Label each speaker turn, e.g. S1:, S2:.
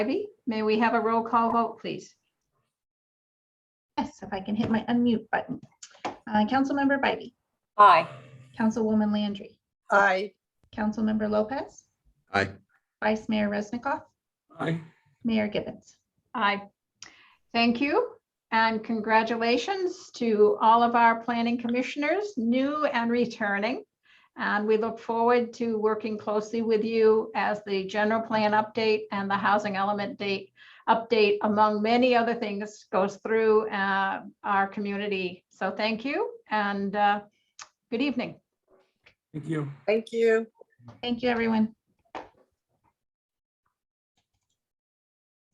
S1: Ivy, may we have a roll call vote, please?
S2: Yes, if I can hit my unmute button. Uh, Councilmember Bybee,
S3: Aye.
S2: Councilwoman Landry,
S4: Aye.
S2: Councilmember Lopez,
S5: Aye.
S2: Vice Mayor Resnikoff,
S6: Aye.
S2: Mayor Gibbons.
S1: Aye. Thank you and congratulations to all of our planning commissioners, new and returning. And we look forward to working closely with you as the general plan update and the housing element date update, among many other things, goes through uh, our community. So thank you and uh, good evening.
S6: Thank you.
S4: Thank you.
S2: Thank you, everyone.